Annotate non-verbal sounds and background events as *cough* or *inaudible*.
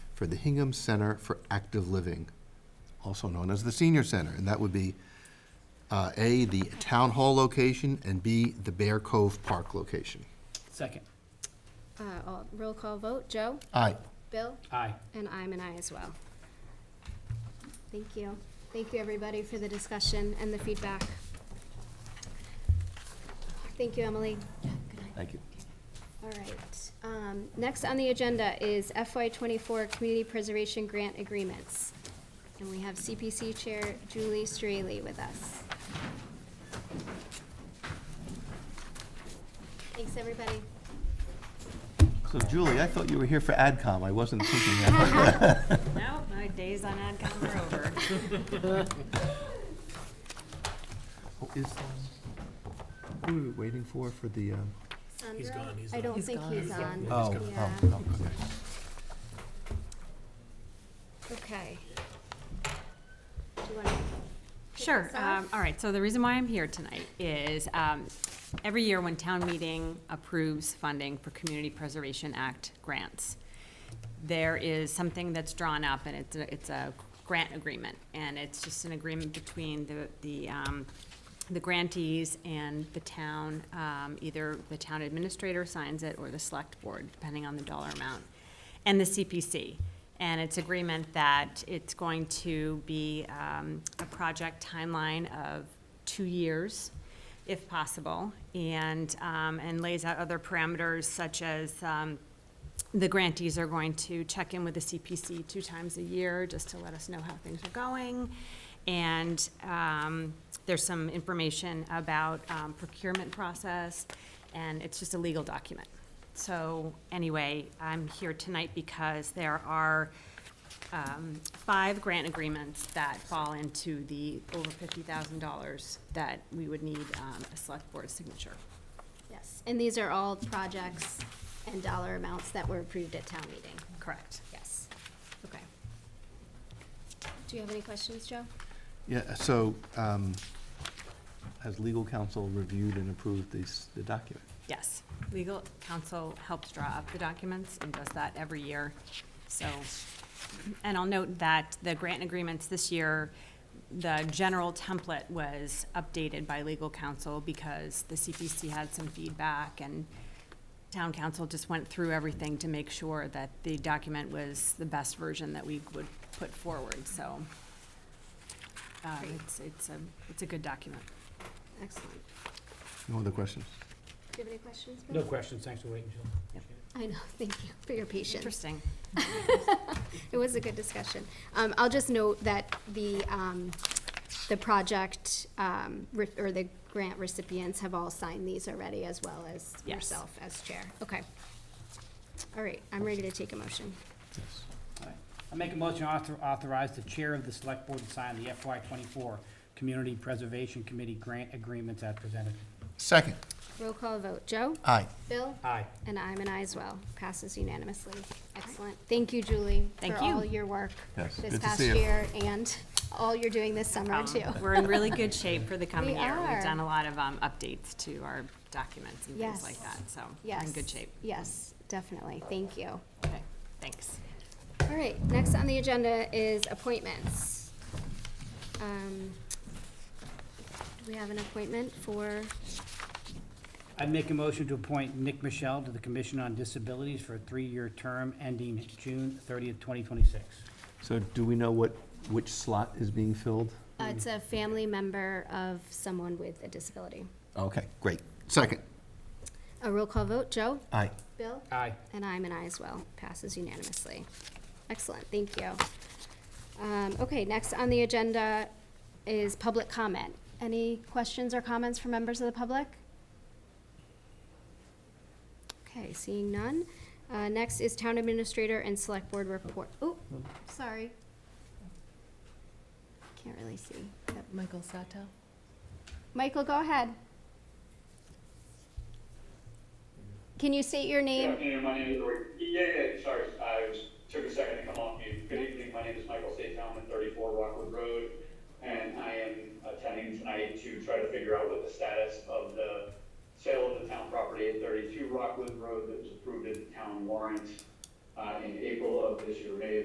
for the Hingham Center for Active Living, also known as the Senior Center. And that would be, uh, A, the Town Hall location, and B, the Bear Cove Park location. Second. Uh, all- Roll call vote, Joe, Aye. Bill, Aye. and I'm an I as well. Thank you. Thank you, everybody, for the discussion and the feedback. Thank you, Emily. Thank you. All right. Um, Next on the agenda is FY twenty-four Community Preservation Grant Agreements. And we have CPC Chair Julie Straley with us. Thanks, everybody. So Julie, I thought you were here for AdCom. I wasn't thinking that. No, my days on AdCom are over. *laughs* Oh, Is, um, who are we waiting for, for the, um? He's Sandra? gone, he's I on. don't think he's on. Oh, Yeah. oh, oh, okay. Okay. Do you want to? Sure. us Um, off? all right. So the reason why I'm here tonight is um, every year when town meeting approves funding for Community Preservation Act grants, there is something that's drawn up and it's a, it's a grant agreement. And it's just an agreement between the, the, um, the grantees and the town. Um, either the town administrator signs it or the select board, depending on the dollar amount, and the CPC. And it's agreement that it's going to be um, a project timeline of two years, if possible, and, um, and lays out other parameters such as um, the grantees are going to check in with the CPC two times a year, just to let us know how things are going. And um, there's some information about um, procurement process, and it's just a legal document. So anyway, I'm here tonight because there are um, five grant agreements that fall into the over fifty thousand dollars that we would need um, a select board signature. Yes, and these are all projects and dollar amounts that were approved at town meeting. Correct. Yes. Okay. Do you have any questions, Joe? Yeah, so, um, has legal counsel reviewed and approved these, the document? Yes, legal counsel helps draw up the documents and does that every year, so. And I'll note that the grant agreements this year, the general template was updated by legal counsel because the CPC had some feedback and town council just went through everything to make sure that the document was the best version that we would put forward, so. uh, Great. It's, it's a, it's a good document. Excellent. No other questions? Do you have any questions? Bill? No questions, thanks for waiting, Jill. Yep. I know, *laughs* thank you for your patience. Interesting. It was a good discussion. Um, I'll just note that the, um, the project, um, re- or the grant recipients have all signed these already, as well as Yes. yourself as chair. Okay. All right, I'm ready to take a motion. Yes. All right. I make a motion author- authorize the chair of the select board to sign the FY twenty-four Community Preservation Committee grant agreements as presented. Second. Roll call vote. Joe? Aye. Bill? Aye. And I'm an aye as well. Passes unanimously. Excellent. Thank you, Julie. Thank For all you. your work Yes, this good to past see you. year and all you're doing this summer, too. Um, We're in really good shape for the coming *laughs* We year. are. We've done a lot of um, updates to our documents and Yes. things like that, so we're Yes. in good shape. Yes, definitely. Thank you. Okay, thanks. All right, next on the agenda is appointments. Um, Do we have an appointment for, I make a motion to appoint Nick Michelle to the Commission on Disabilities for a three-year term ending June thirtieth, twenty twenty-six. So do we know what, which slot is being filled? uh, it's a family member of someone with a disability. Okay, great. Second. A roll call vote. Joe? Aye. Bill? Aye. And I'm an aye as well. Passes unanimously. Excellent, thank you. Um, okay, next on the agenda is public comment. Any questions or comments from members of the public? Okay, seeing none. Uh, next is town administrator and select board report. Oh, sorry. Can't really see. Yep. Michael Sato. Michael, go ahead. Can you state your Good name? afternoon, my name is, yeah, yeah, sorry, I was, took a second to come off mute. Good evening, my name is Michael Statham, I'm at thirty-four Rockwood Road, and I am attending tonight to try to figure out what the status of the sale of the town property at thirty-two Rockwood Road that was approved at the town warrant, uh, in April of this year, May of